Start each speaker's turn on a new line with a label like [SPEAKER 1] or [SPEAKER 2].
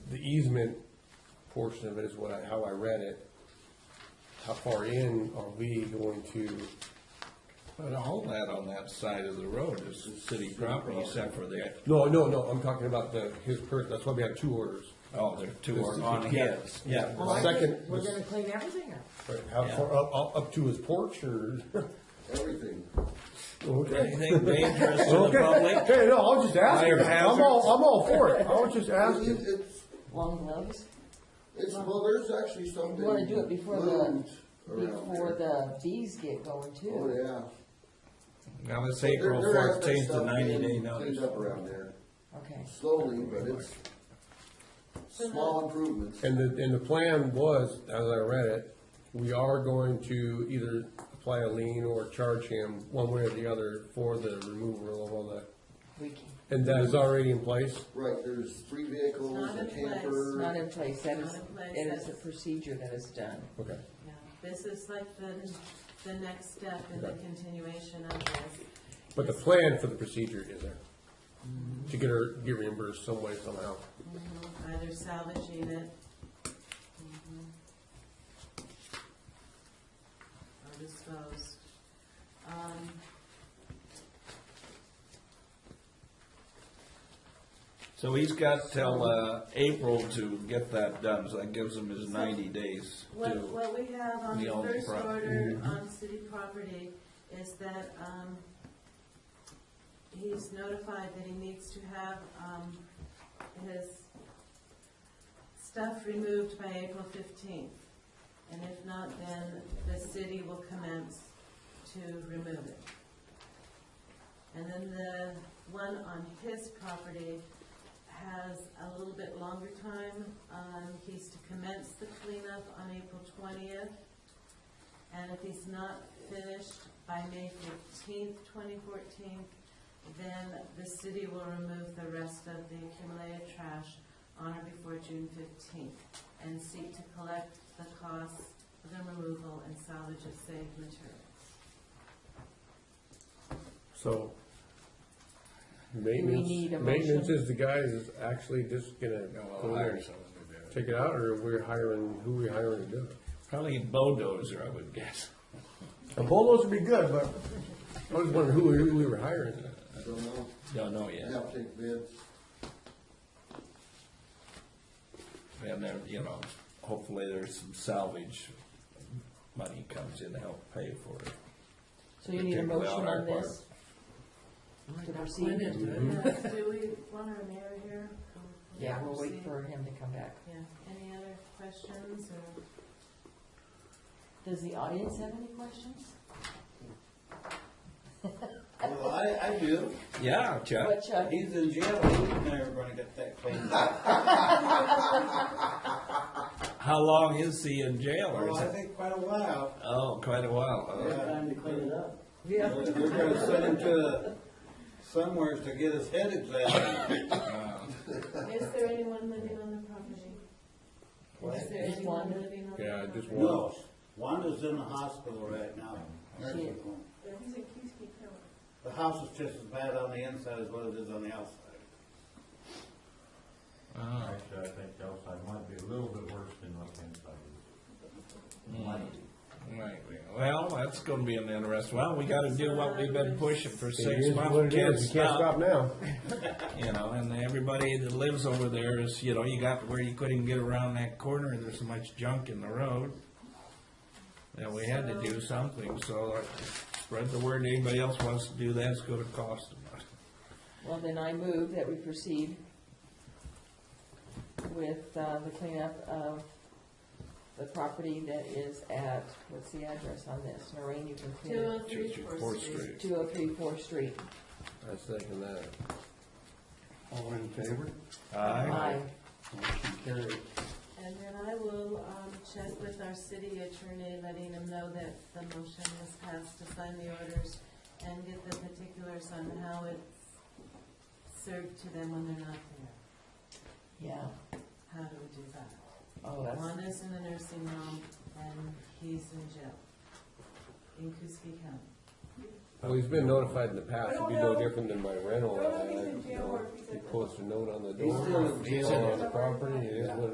[SPEAKER 1] easement portion of it is what I, how I read it. How far in are we going to,
[SPEAKER 2] But all that on that side of the road is city property except for the,
[SPEAKER 1] no, no, no, I'm talking about the, his per, that's why we have two orders.
[SPEAKER 2] oh, there are two are
[SPEAKER 1] This-
[SPEAKER 2] on
[SPEAKER 1] yeah.
[SPEAKER 2] his. Yeah.
[SPEAKER 1] Well,
[SPEAKER 3] Well, I think
[SPEAKER 1] Second-
[SPEAKER 3] we're gonna clean everything up.
[SPEAKER 1] Right, How far, up, up- up to his porch or?
[SPEAKER 4] everything.
[SPEAKER 1] Okay.
[SPEAKER 2] Anything dangerous to the
[SPEAKER 1] Okay,
[SPEAKER 2] public?
[SPEAKER 1] okay, no, I was just asking.
[SPEAKER 2] Fire
[SPEAKER 1] I'm all, I'm all for it. I was just
[SPEAKER 4] I mean,
[SPEAKER 1] asking.
[SPEAKER 4] it's,
[SPEAKER 3] Long gloves,
[SPEAKER 4] it's, well, there's actually something.
[SPEAKER 3] you wanna do it before the,
[SPEAKER 4] moved around
[SPEAKER 3] before
[SPEAKER 4] there.
[SPEAKER 3] the bees get going
[SPEAKER 4] Oh,
[SPEAKER 3] too.
[SPEAKER 4] yeah.
[SPEAKER 2] Now, it's
[SPEAKER 4] There-
[SPEAKER 2] April
[SPEAKER 4] there has been
[SPEAKER 2] fourteenth to
[SPEAKER 4] stuff
[SPEAKER 2] ninety
[SPEAKER 4] being
[SPEAKER 2] day
[SPEAKER 4] Cleaned
[SPEAKER 2] notice.
[SPEAKER 4] up around there
[SPEAKER 3] Okay,
[SPEAKER 4] slowly, but it's small improvements.
[SPEAKER 1] And the, and the plan was, as I read it, we are going to either apply a lien or charge him one way or the other for the removal of all that.
[SPEAKER 3] we can,
[SPEAKER 1] And that is already in place?
[SPEAKER 4] Right, there's three vehicles,
[SPEAKER 5] Not
[SPEAKER 4] a
[SPEAKER 5] in place.
[SPEAKER 3] it's
[SPEAKER 4] camper.
[SPEAKER 3] not in place, that is,
[SPEAKER 5] Not in place,
[SPEAKER 3] it is a
[SPEAKER 5] that's-
[SPEAKER 3] procedure that is done.
[SPEAKER 1] Okay.
[SPEAKER 5] Yeah, This is like the, the next step in the
[SPEAKER 1] Okay.
[SPEAKER 5] continuation of this.
[SPEAKER 1] But the plan for the procedure is there, to get her, get reimbursed some way somehow.
[SPEAKER 5] Either salvaging it. mhm, Or disposed. Um,
[SPEAKER 2] So he's got till, uh, April to get that done, so that gives him his ninety days
[SPEAKER 5] What,
[SPEAKER 2] to.
[SPEAKER 5] what we have on
[SPEAKER 2] The
[SPEAKER 5] the
[SPEAKER 2] old
[SPEAKER 5] first
[SPEAKER 2] pro-
[SPEAKER 5] order on city property is that, um, he's notified that he needs to have, um, his stuff removed by April fifteenth. And if not, then the city will commence to remove it. And then the one on his property has a little bit longer time. Um, he's to commence the cleanup on April twentieth. And if he's not finished by May fifteenth, twenty fourteen, then the city will remove the rest of the accumulated trash on or before June fifteenth and seek to collect the costs of the removal and salvage of saved materials.
[SPEAKER 1] So
[SPEAKER 3] Do we need
[SPEAKER 1] maintenance,
[SPEAKER 3] a motion?
[SPEAKER 1] maintenance is the guy is actually just gonna go there and
[SPEAKER 2] someone to do it.
[SPEAKER 1] take it out, or we're hiring, who we hiring to do it?
[SPEAKER 2] Probably a bulldozer, I would guess.
[SPEAKER 1] A bulldozer would be good, but. I was wondering who, who we were hiring.
[SPEAKER 4] I don't know.
[SPEAKER 2] Don't know
[SPEAKER 4] You
[SPEAKER 2] yet.
[SPEAKER 4] have to take bids.
[SPEAKER 2] And then, you know, hopefully there's some salvage money comes in to help pay for it.
[SPEAKER 3] So you need a
[SPEAKER 2] Particularly
[SPEAKER 3] motion
[SPEAKER 2] our Oh
[SPEAKER 3] on
[SPEAKER 2] part.
[SPEAKER 3] this? To proceed?
[SPEAKER 5] Do we want our mayor here?
[SPEAKER 3] Mm-hmm. Yeah, we'll wait for him to come back.
[SPEAKER 5] Yeah, any other questions or?
[SPEAKER 3] Does the audience have any questions?
[SPEAKER 4] Well, I, I do.
[SPEAKER 2] Yeah, Chuck.
[SPEAKER 3] What, Chuck?
[SPEAKER 6] He's in jail, he's never gonna get that cleaned up.
[SPEAKER 2] How long is he in jail or
[SPEAKER 6] Well,
[SPEAKER 2] is
[SPEAKER 6] I
[SPEAKER 2] it?
[SPEAKER 6] think quite a while,
[SPEAKER 2] Oh, quite a while.
[SPEAKER 6] it's
[SPEAKER 2] huh?
[SPEAKER 6] time to clean it up.
[SPEAKER 3] Yeah.
[SPEAKER 6] They're they're gonna send him to somewheres to get his head examined.
[SPEAKER 3] Uh,
[SPEAKER 5] Is there anyone living on the property? Is there
[SPEAKER 3] Just
[SPEAKER 5] anyone
[SPEAKER 3] one?
[SPEAKER 5] living on the property?
[SPEAKER 1] Yeah, just one.
[SPEAKER 6] No, Wanda's in the hospital right now, nursing home. The house is just as bad on the inside as what it is on the outside.
[SPEAKER 7] Actually, I think the outside might be a little bit worse than what's inside.
[SPEAKER 2] Right, well, that's gonna be an interest, well, we gotta do what we've been pushing for
[SPEAKER 1] It
[SPEAKER 2] six
[SPEAKER 1] is
[SPEAKER 2] months.
[SPEAKER 1] what it is. You
[SPEAKER 2] Can't stop,
[SPEAKER 1] now.
[SPEAKER 2] You know, and everybody that lives over there is, you know, you got where you couldn't get around that corner, there's so much junk in the road. And we had to do something, so uh, spread the word, anybody else wants to do that, it's gonna cost them.
[SPEAKER 3] Well, then I move that we proceed with uh, the cleanup of the property that is at, what's the address on this? Noreen, you can clean
[SPEAKER 5] Two
[SPEAKER 3] it.
[SPEAKER 5] oh three Fourth Street.
[SPEAKER 3] Two oh three Fourth Street.
[SPEAKER 1] I was thinking that.
[SPEAKER 4] All in favor?
[SPEAKER 2] Aye.
[SPEAKER 5] And then I will, um, check with our city attorney, letting him know that the motion was passed to sign the orders and get the particulars on how it's served to them when they're not there.
[SPEAKER 3] Yeah,
[SPEAKER 5] How do we do that?
[SPEAKER 3] oh, that's,
[SPEAKER 5] Wanda's in a nursing home and he's in jail in Kuski County.
[SPEAKER 1] Well, he's been notified in the past, it'd be no different than my rental. I, you know, He posts a note on the door.
[SPEAKER 4] still in jail.
[SPEAKER 1] On the property,